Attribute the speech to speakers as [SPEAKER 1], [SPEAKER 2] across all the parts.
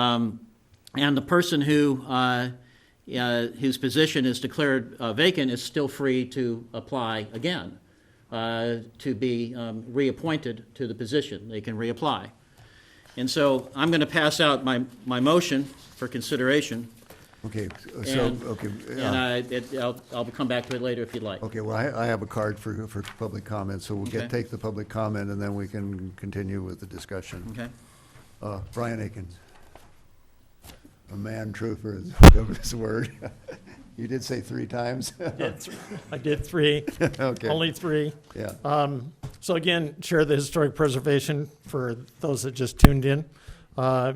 [SPEAKER 1] Um, and the person who, uh, uh, whose position is declared uh, vacant is still free to apply again uh, to be um, reappointed to the position. They can reapply. And so I'm going to pass out my, my motion for consideration.
[SPEAKER 2] Okay, uh, so,
[SPEAKER 1] And-
[SPEAKER 2] okay,
[SPEAKER 1] And
[SPEAKER 2] uh,
[SPEAKER 1] I, it- I'll, I'll come back to it later if you'd like.
[SPEAKER 2] okay, well, I, I have a card for, for public comment, so we'll
[SPEAKER 1] Okay.
[SPEAKER 2] get, take the public comment, and then we can continue with the discussion.
[SPEAKER 1] Okay?
[SPEAKER 2] Uh, Brian Akins. A man true for his, of his word. You did say three times?
[SPEAKER 3] did th- I did three,
[SPEAKER 2] Okay,
[SPEAKER 3] only three.
[SPEAKER 2] yeah.
[SPEAKER 3] So again, Chair of the Historic Preservation, for those that just tuned in. Uh,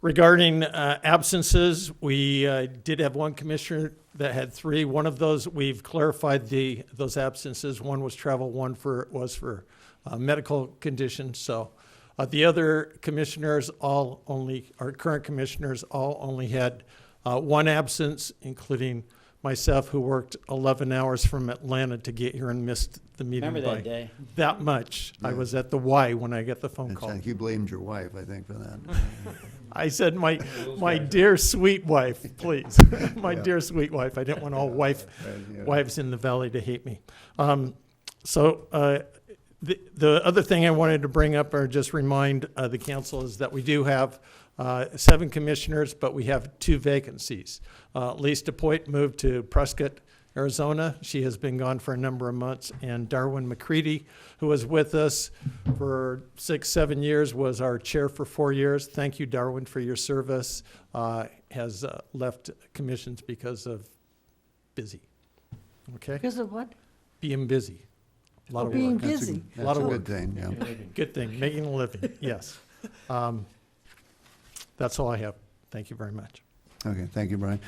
[SPEAKER 3] Regarding uh, absences, we uh, did have one commissioner that had three. One of those, we've clarified the, those absences. One was travel, one for, was for uh, medical conditions, so. uh, The other commissioners, all only, our current commissioners, all only had uh, one absence, including myself, who worked 11 hours from Atlanta to get here and missed the meeting
[SPEAKER 1] Remember
[SPEAKER 3] by-
[SPEAKER 1] that day?
[SPEAKER 3] that much. I was at the Y when I got the phone
[SPEAKER 2] It's
[SPEAKER 3] call.
[SPEAKER 2] like You blamed your wife, I think, for that.
[SPEAKER 3] I said, "My, my dear sweet wife, please, my dear sweet wife." I didn't want all wife
[SPEAKER 2] yeah.
[SPEAKER 3] wives in the valley to hate me. Um, so uh, the the other thing I wanted to bring up or just remind uh, the council is that we do have. Uh, seven commissioners, but we have two vacancies. Uh, Lisa DePoit moved to Prescott, Arizona. She has been gone for a number of months. And Darwin McCready, who was with us for six, seven years, was our chair for four years. Thank you, Darwin, for your service. Uh, has uh, left commissions because of busy. Okay?
[SPEAKER 4] Because of what?
[SPEAKER 3] Being busy. A lot of
[SPEAKER 4] Being
[SPEAKER 3] work.
[SPEAKER 2] That's a-
[SPEAKER 4] busy.
[SPEAKER 3] Lot
[SPEAKER 2] That's a
[SPEAKER 3] of
[SPEAKER 2] good thing, yeah.
[SPEAKER 3] Good thing, making a living, yes. Um, that's all I have. Thank you very much.
[SPEAKER 2] Okay, thank you, Brian.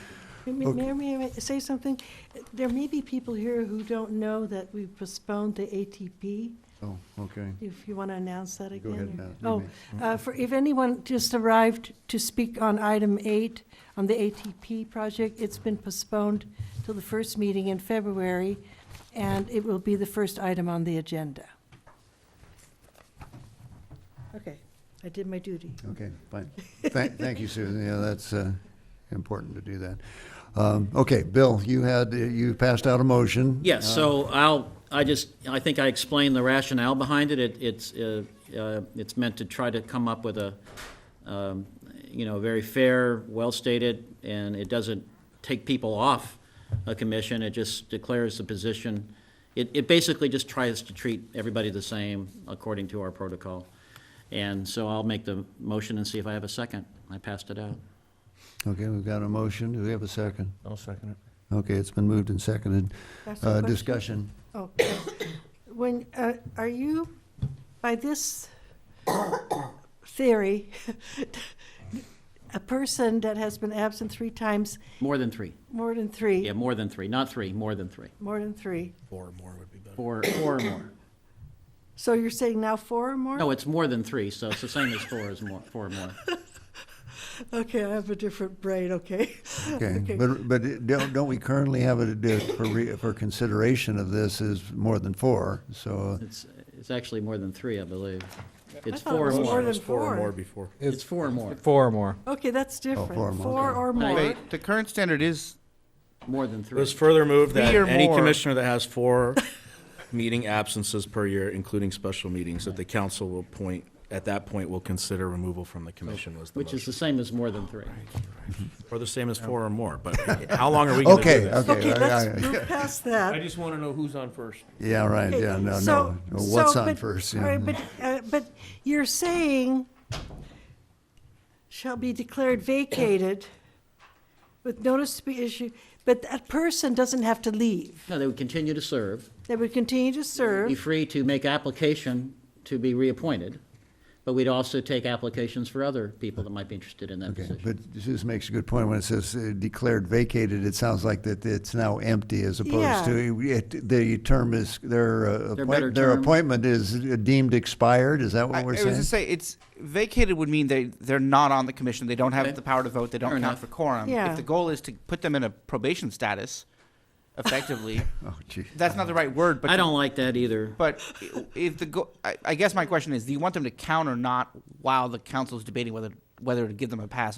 [SPEAKER 4] May-
[SPEAKER 2] Okay.
[SPEAKER 4] May may I say something? There may be people here who don't know that we postponed the ATP.
[SPEAKER 2] Oh, okay.
[SPEAKER 4] If you want to announce that
[SPEAKER 2] Go
[SPEAKER 4] again.
[SPEAKER 2] ahead,
[SPEAKER 4] or-
[SPEAKER 2] yeah, you may.
[SPEAKER 4] Oh, uh, for, if anyone just arrived to speak on item eight, on the ATP project, it's been postponed till the first meeting in February, and it will be the first item on the agenda. Okay, I did my duty.
[SPEAKER 2] Okay, fine. Thank, thank you, Susan. Yeah, that's, uh, important to do that. Um, okay, Bill, you had, you passed out a motion.
[SPEAKER 1] Yes, so I'll, I just, I think I explained the rationale behind it. It- It's, uh, uh, it's meant to try to come up with a, um, you know, very fair, well-stated, and it doesn't take people off a commission, it just declares the position. It, it basically just tries to treat everybody the same according to our protocol. And so I'll make the motion and see if I have a second. I passed it out.
[SPEAKER 2] Okay, we've got a motion. Do we have a second?
[SPEAKER 5] I'll second it.
[SPEAKER 2] Okay, it's been moved and seconded.
[SPEAKER 4] That's the
[SPEAKER 2] Uh,
[SPEAKER 4] question.
[SPEAKER 2] discussion.
[SPEAKER 4] Oh, When, uh, are you, by this theory, a person that has been absent three times,
[SPEAKER 1] More than three.
[SPEAKER 4] more than three,
[SPEAKER 1] Yeah, more than three, not three, more than three.
[SPEAKER 4] more than three,
[SPEAKER 1] Four, four or more.
[SPEAKER 4] so you're saying now four or more?
[SPEAKER 1] No, Oh, it's more than three, so it's the same as four is more, four more.
[SPEAKER 4] Okay, I have a different brain, okay.
[SPEAKER 2] Okay,
[SPEAKER 4] Okay.
[SPEAKER 2] but, but it- don't, don't we currently have it uh, for re, for consideration of this is more than four, so,
[SPEAKER 1] It's, it's actually more than three, I believe. It's
[SPEAKER 4] thought it
[SPEAKER 1] four or
[SPEAKER 4] was
[SPEAKER 1] more.
[SPEAKER 4] more
[SPEAKER 6] It was
[SPEAKER 4] than
[SPEAKER 6] four
[SPEAKER 4] four.
[SPEAKER 6] or more before.
[SPEAKER 1] It's four or more,
[SPEAKER 5] Four or more.
[SPEAKER 4] Okay, that's different.
[SPEAKER 2] Oh, four or more,
[SPEAKER 4] Four
[SPEAKER 2] okay.
[SPEAKER 4] or more.
[SPEAKER 1] Right.
[SPEAKER 7] Wait, the current standard is,
[SPEAKER 1] more than
[SPEAKER 6] It
[SPEAKER 1] three.
[SPEAKER 6] was further moved that
[SPEAKER 7] Three or
[SPEAKER 6] any
[SPEAKER 7] more.
[SPEAKER 6] commissioner that has four meeting absences per year, including special meetings, that the council will point, at that point, will consider removal from the commission was the
[SPEAKER 1] Which is the
[SPEAKER 6] motion.
[SPEAKER 1] same as more than three.
[SPEAKER 6] Or the same as four or more, but how long are we gonna do
[SPEAKER 2] okay,
[SPEAKER 6] this?
[SPEAKER 2] okay.
[SPEAKER 4] Okay,
[SPEAKER 2] all
[SPEAKER 4] let's
[SPEAKER 2] right.
[SPEAKER 4] move past that.
[SPEAKER 5] I just want to know who's on first.
[SPEAKER 2] Yeah, right,
[SPEAKER 4] Okay,
[SPEAKER 2] yeah, no,
[SPEAKER 4] so-
[SPEAKER 2] no, no,
[SPEAKER 4] so,
[SPEAKER 2] what's on
[SPEAKER 4] but-
[SPEAKER 2] first,
[SPEAKER 4] all
[SPEAKER 2] yeah.
[SPEAKER 4] right, But, uh, but you're saying shall be declared vacated with notice to be issued, but that person doesn't have to leave.
[SPEAKER 1] No, they would continue to serve,
[SPEAKER 4] They would continue to
[SPEAKER 1] be
[SPEAKER 4] serve.
[SPEAKER 1] free to make application to be reappointed, but we'd also take applications for other people that might be interested in that
[SPEAKER 2] Okay,
[SPEAKER 1] position.
[SPEAKER 2] but Susan makes a good point when it says uh, declared vacated, it sounds like that it's now empty as opposed
[SPEAKER 4] Yeah.
[SPEAKER 2] to, it- the term is, their,
[SPEAKER 1] Their
[SPEAKER 2] uh,
[SPEAKER 1] better
[SPEAKER 2] appoint- their
[SPEAKER 1] term.
[SPEAKER 2] appointment is deemed expired, is that
[SPEAKER 7] I, I
[SPEAKER 2] what we're
[SPEAKER 7] was
[SPEAKER 2] saying?
[SPEAKER 7] gonna say, it's, vacated would mean they, they're not on the commission, they don't
[SPEAKER 1] Okay.
[SPEAKER 7] have the power to vote, they
[SPEAKER 1] Fair
[SPEAKER 7] don't count
[SPEAKER 1] enough.
[SPEAKER 7] for quorum.
[SPEAKER 4] Yeah.
[SPEAKER 7] If the goal is to put them in a probation status, effectively,
[SPEAKER 2] Oh, gee.
[SPEAKER 7] that's not the right word, but.
[SPEAKER 1] I don't like that either.
[SPEAKER 7] But i- if the, go- I, I guess my question is, do you want them to count or not while the council's debating whether, whether to give them a pass